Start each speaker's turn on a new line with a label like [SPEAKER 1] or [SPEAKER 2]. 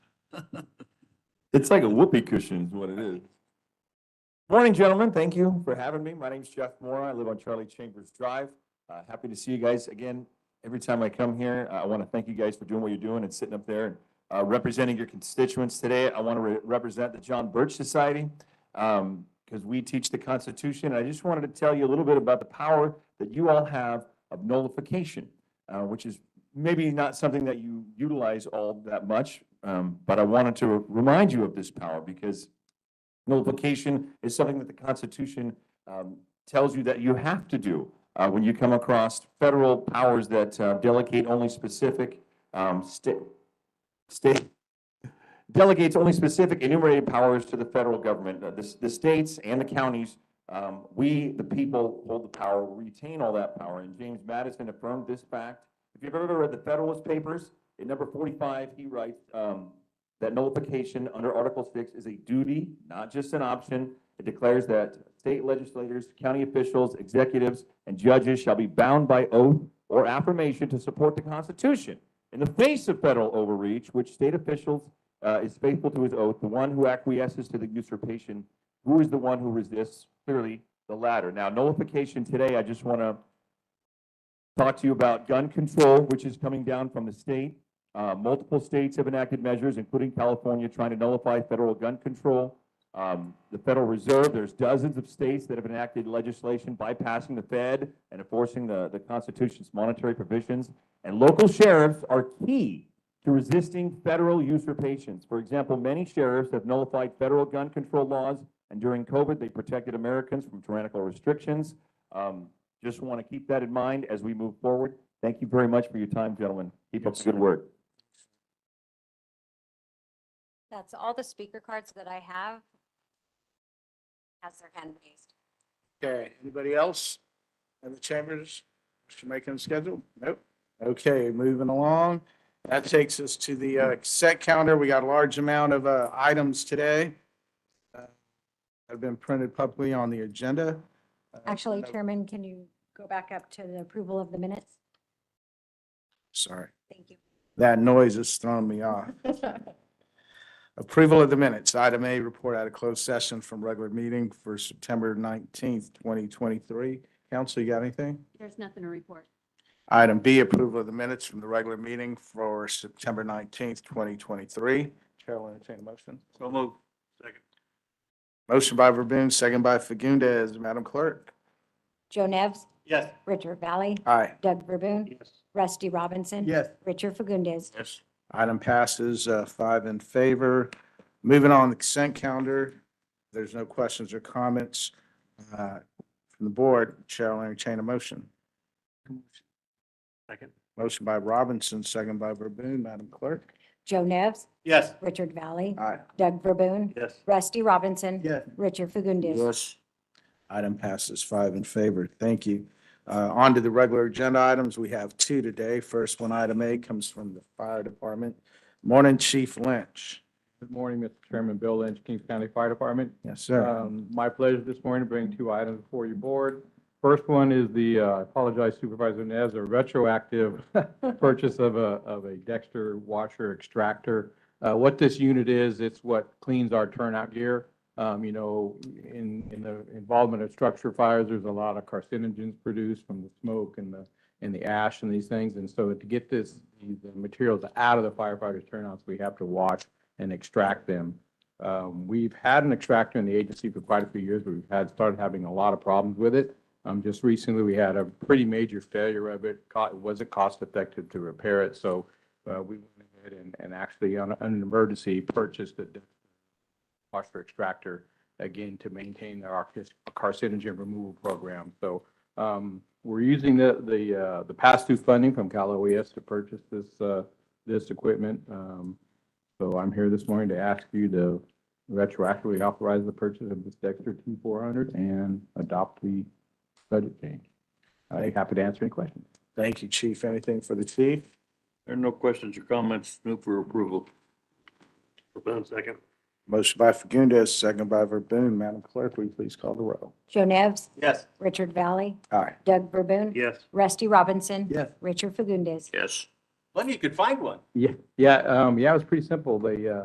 [SPEAKER 1] It's like a whoopee cushion is what it is. Morning, gentlemen. Thank you for having me. My name's Jeff Moore. I live on Charlie Chambers Drive. Uh, happy to see you guys again. Every time I come here, uh, I want to thank you guys for doing what you're doing and sitting up there and uh, representing your constituents today. I want to represent the John Birch Society um, because we teach the Constitution. I just wanted to tell you a little bit about the power that you all have of nullification, uh, which is maybe not something that you utilize all that much, um, but I wanted to remind you of this power because nullification is something that the Constitution um, tells you that you have to do uh, when you come across federal powers that uh, delegate only specific um, state, state, delegates only specific enumerated powers to the federal government. Uh, The, s- the states and the counties, um, we, the people, hold the power, retain all that power. And James Madison affirmed this fact. If you've ever read the Federalist Papers, in number forty-five, he writes, um, that nullification under Article Six is a duty, not just an option. It declares that state legislators, county officials, executives, and judges shall be bound by oath or affirmation to support the Constitution. In the face of federal overreach, which state officials uh, is faithful to his oath, the one who acquiesces to the usurpation, who is the one who resists? Clearly, the latter. Now, nullification today, I just want to talk to you about gun control, which is coming down from the state. Uh, multiple states have enacted measures, including California, trying to nullify federal gun control. Um, the Federal Reserve, there's dozens of states that have enacted legislation bypassing the Fed and enforcing the, the Constitution's monetary provisions. And local sheriffs are key to resisting federal usurpations. For example, many sheriffs have nullified federal gun control laws, and during COVID, they protected Americans from tyrannical restrictions. Um, just want to keep that in mind as we move forward. Thank you very much for your time, gentlemen. Keep up the good work.
[SPEAKER 2] That's all the speaker cards that I have. Has their hand raised.
[SPEAKER 3] Okay, anybody else? Other chambers, Mr. Macon's schedule? Nope. Okay, moving along. That takes us to the uh, set counter. We got a large amount of uh, items today. uh, Have been printed publicly on the agenda. Uh,
[SPEAKER 2] Actually,
[SPEAKER 3] no,
[SPEAKER 2] Chairman, can you go back up to the approval of the minutes?
[SPEAKER 3] Sorry,
[SPEAKER 2] Thank you.
[SPEAKER 3] that noise has thrown me off. Approval of the minutes, item A, report out of closed session from regular meeting for September nineteenth, twenty twenty-three. Council, you got anything?
[SPEAKER 4] There's nothing to report.
[SPEAKER 3] Item B, approval of the minutes from the regular meeting for September nineteenth, twenty twenty-three. Chair will entertain a motion.
[SPEAKER 5] So move. Second.
[SPEAKER 3] Motion by Verboen, second by Fagundes. Madam Clerk?
[SPEAKER 2] Joe Nevs,
[SPEAKER 5] Yes.
[SPEAKER 2] Richard Valley,
[SPEAKER 3] Aye.
[SPEAKER 2] Doug Verboon,
[SPEAKER 5] Yes.
[SPEAKER 2] Rusty Robinson.
[SPEAKER 3] Yes.
[SPEAKER 2] Richard Fagundes.
[SPEAKER 5] Yes.
[SPEAKER 3] Item passes, uh, five in favor. Moving on, the consent calendar. There's no questions or comments, uh, from the board. Chair will entertain a motion.
[SPEAKER 5] Second.
[SPEAKER 3] Motion by Robinson, second by Verboen. Madam Clerk?
[SPEAKER 2] Joe Nevs,
[SPEAKER 5] Yes.
[SPEAKER 2] Richard Valley,
[SPEAKER 3] Aye.
[SPEAKER 2] Doug Verboon,
[SPEAKER 5] Yes.
[SPEAKER 2] Rusty Robinson.
[SPEAKER 3] Yes.
[SPEAKER 2] Richard Fagundes.
[SPEAKER 3] Item passes five in favor. Thank you. Uh, On to the regular agenda items. We have two today. First one, item A, comes from the fire department. Morning, Chief Lynch.
[SPEAKER 6] Good morning, Mr. Chairman. Bill Lynch, Kings County Fire Department.
[SPEAKER 3] Yes,
[SPEAKER 5] Uh,
[SPEAKER 3] sir.
[SPEAKER 6] Um, My pleasure this morning to bring two items before your board. First one is the, uh, I apologize Supervisor Nez, a retroactive purchase of a, of a Dexter washer extractor. Uh, What this unit is, it's what cleans our turnout gear. Um, You know, in, in the involvement of structure fires, there's a lot of carcinogens produced from the smoke and the, and the ash and these things. And so to get this, these materials out of the firefighters' turnouts, we have to wash and extract them. Um, We've had an extractor in the agency for quite a few years, but we've had, started having a lot of problems with it. Um, Just recently, we had a pretty major failure of it. Co- It wasn't cost effective to repair it, so uh, we went ahead and- and actually on on an emergency purchased a phosphor extractor, again, to maintain our carc- carcinogen removal program. So um, we're using the, the, uh, the pass-through funding from Cal OES to purchase this, uh, this equipment. Um, So I'm here this morning to ask you to retroactively authorize the purchase of this Dexter T400 and adopt the budget change. I'd be happy to answer any questions.
[SPEAKER 3] Thank you, Chief. Anything for the chief?
[SPEAKER 5] There are no questions or comments. Move for approval. Verboen, second.
[SPEAKER 3] Motion by Fagundes, second by Verboen. Madam Clerk, will you please call the roll?
[SPEAKER 2] Joe Nevs,
[SPEAKER 5] Yes.
[SPEAKER 2] Richard Valley,
[SPEAKER 3] Aye.
[SPEAKER 2] Doug Verboon,
[SPEAKER 5] Yes.
[SPEAKER 2] Rusty Robinson.
[SPEAKER 3] Yes.
[SPEAKER 2] Richard Fagundes.
[SPEAKER 5] Yes. Funny you could find one.
[SPEAKER 6] Yeah, yeah, um, yeah, it was pretty simple. They, uh,